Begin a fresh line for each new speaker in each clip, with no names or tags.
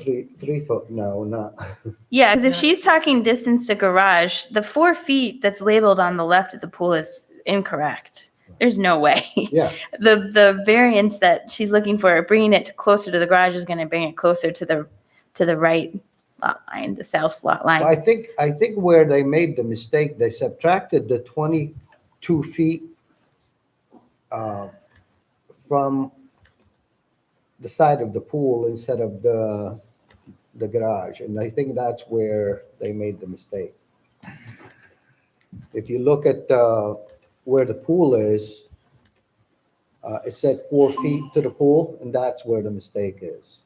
Three, three foot, no, not,
Yeah, because if
Yeah.
she's talking distance to garage, the four feet that's labeled on the left of the pool is incorrect. There's no way.
yeah,
The, the variance that she's looking for, bringing it closer to the garage is going to bring it closer to the, to the right lot line, the south lot
I
line.
think, I think where they made the mistake, they subtracted the twenty-two feet uh, from the side of the pool instead of the, the garage, and I think that's where they made the mistake. If you look at uh, where the pool is, uh, it said four feet to the pool, and that's where the mistake is.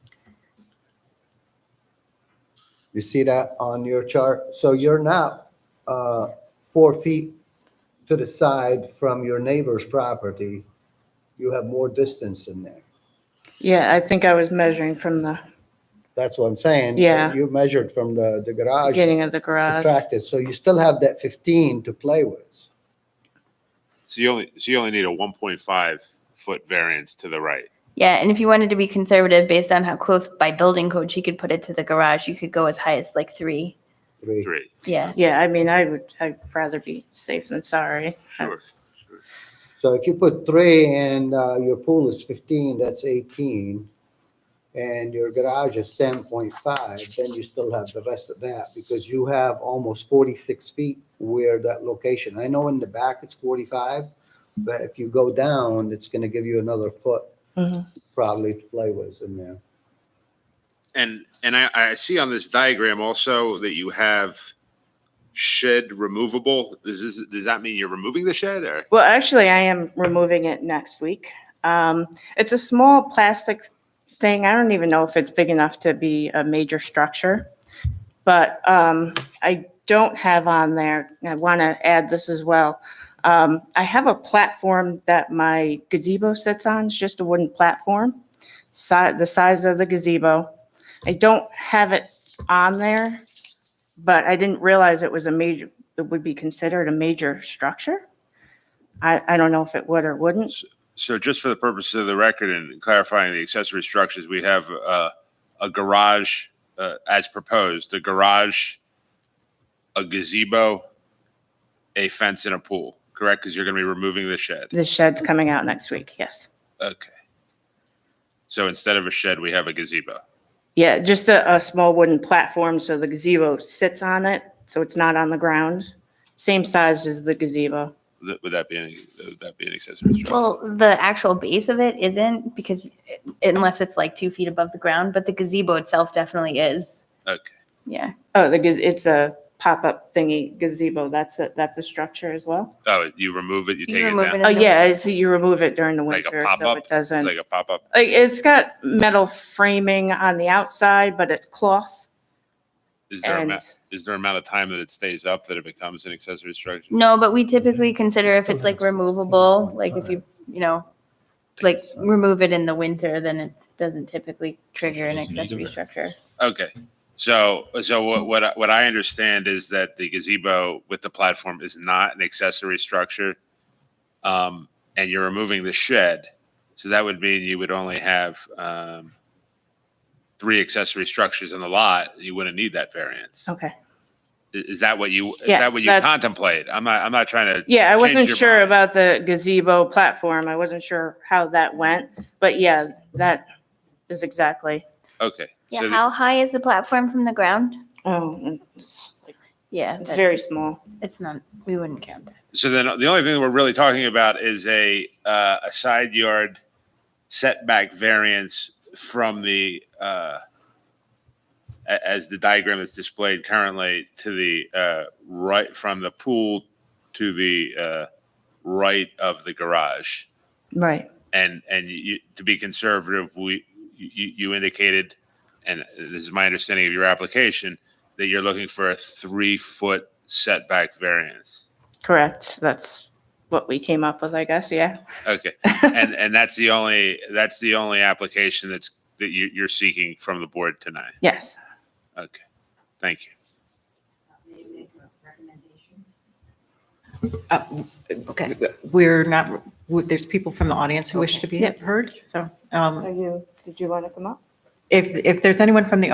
You see that on your chart? So you're now uh, four feet to the side from your neighbor's property. You have more distance in there.
Yeah, I think I was measuring from the
That's what I'm saying.
Yeah.
You measured from the, the garage,
beginning of the garage.
subtracted, so you still have that 15 to play with.
So you only, so you only need a one point five foot variance to the right.
Yeah, and if you wanted to be conservative based on how close by building code she could put it to the garage, you could go as high as like three.
Three.
Three.
Yeah.
Yeah, I mean, I would, I'd rather be safe than sorry.
Sure.
So if you put three and uh, your pool is 15, that's 18, and your garage is 10.5, then you still have the rest of that because you have almost 46 feet where that location. I know in the back it's 45, but if you go down, it's going to give you another foot
Mhm.
probably to play with in there.
And, and I, I see on this diagram also that you have shed removable. Does, this- does that mean you're removing the shed or?
Well, actually, I am removing it next week. Um, it's a small plastic thing. I don't even know if it's big enough to be a major structure. But, um, I don't have on there, and I want to add this as well. Um, I have a platform that my gazebo sits on. It's just a wooden platform, si- the size of the gazebo. I don't have it on there, but I didn't realize it was a major, it would be considered a major structure. I, I don't know if it would or wouldn't.
So just for the purpose of the record and clarifying the accessory structures, we have uh, a garage uh, as proposed, a garage, a gazebo, a fence and a pool, correct? Because you're going to be removing the shed.
The shed's coming out next week, yes.
Okay. So instead of a shed, we have a gazebo.
Yeah, just a, a small wooden platform, so the gazebo sits on it, so it's not on the ground. Same size as the gazebo.
Th- Would that be, an- would that be an accessory structure?
Well, the actual base of it isn't because it- unless it's like two feet above the ground, but the gazebo itself definitely is.
Okay.
Yeah.
Oh, the, gaz- it's a pop-up thingy gazebo, that's a, that's a structure as well?
Oh, you remove it,
You
you take it
remove it and-
down?
Oh, yeah, I see you remove it during the
Like a
winter, so
pop-up?
it
It's
doesn't.
like a pop-up?
Like, it's got metal framing on the outside, but it's cloth.
Is there, a ma-
And-
is there amount of time that it stays up that it becomes an accessory structure?
No, but we typically consider if it's like removable, like if you, you know, like remove it in the winter, then it doesn't typically trigger an accessory structure.
Okay. So, so what, what, I- what I understand is that the gazebo with the platform is not an accessory structure. Um, and you're removing the shed. So that would mean you would only have, um, three accessory structures in the lot. You wouldn't need that variance.
Okay.
I- Is that what you, is
Oh. Yes,
that what you
that's-
contemplate? I'm not, I'm not trying to.
Yeah, I
change
wasn't
your
sure
mind.
about the gazebo platform. I wasn't sure how that went, but yeah, that is exactly.
Okay.
Yeah.
So the-
How high is the platform from the ground?
Oh, it's,
Yeah.
it's
that-
very small.
It's not, we wouldn't count that.
So then the only thing that we're really talking about is a, uh, a side yard setback variance from the, uh, a- as the diagram is displayed currently to the, uh, right, from the pool to the, uh, right of the garage.
Right.
And, and you, to be conservative, we, you, you indicated, and this is my understanding of your application, that you're looking for a three-foot setback variance.
Correct. That's what we came up with, I guess. Yeah.
Okay. and and that's the only that's the only application that's that you, you're seeking from the board tonight.
Yes.
Okay, thank you.
Okay, we're not, there's people from the audience who wish to be
Yep.
heard, so um,
you, did you want to come up?
if, if there's anyone from the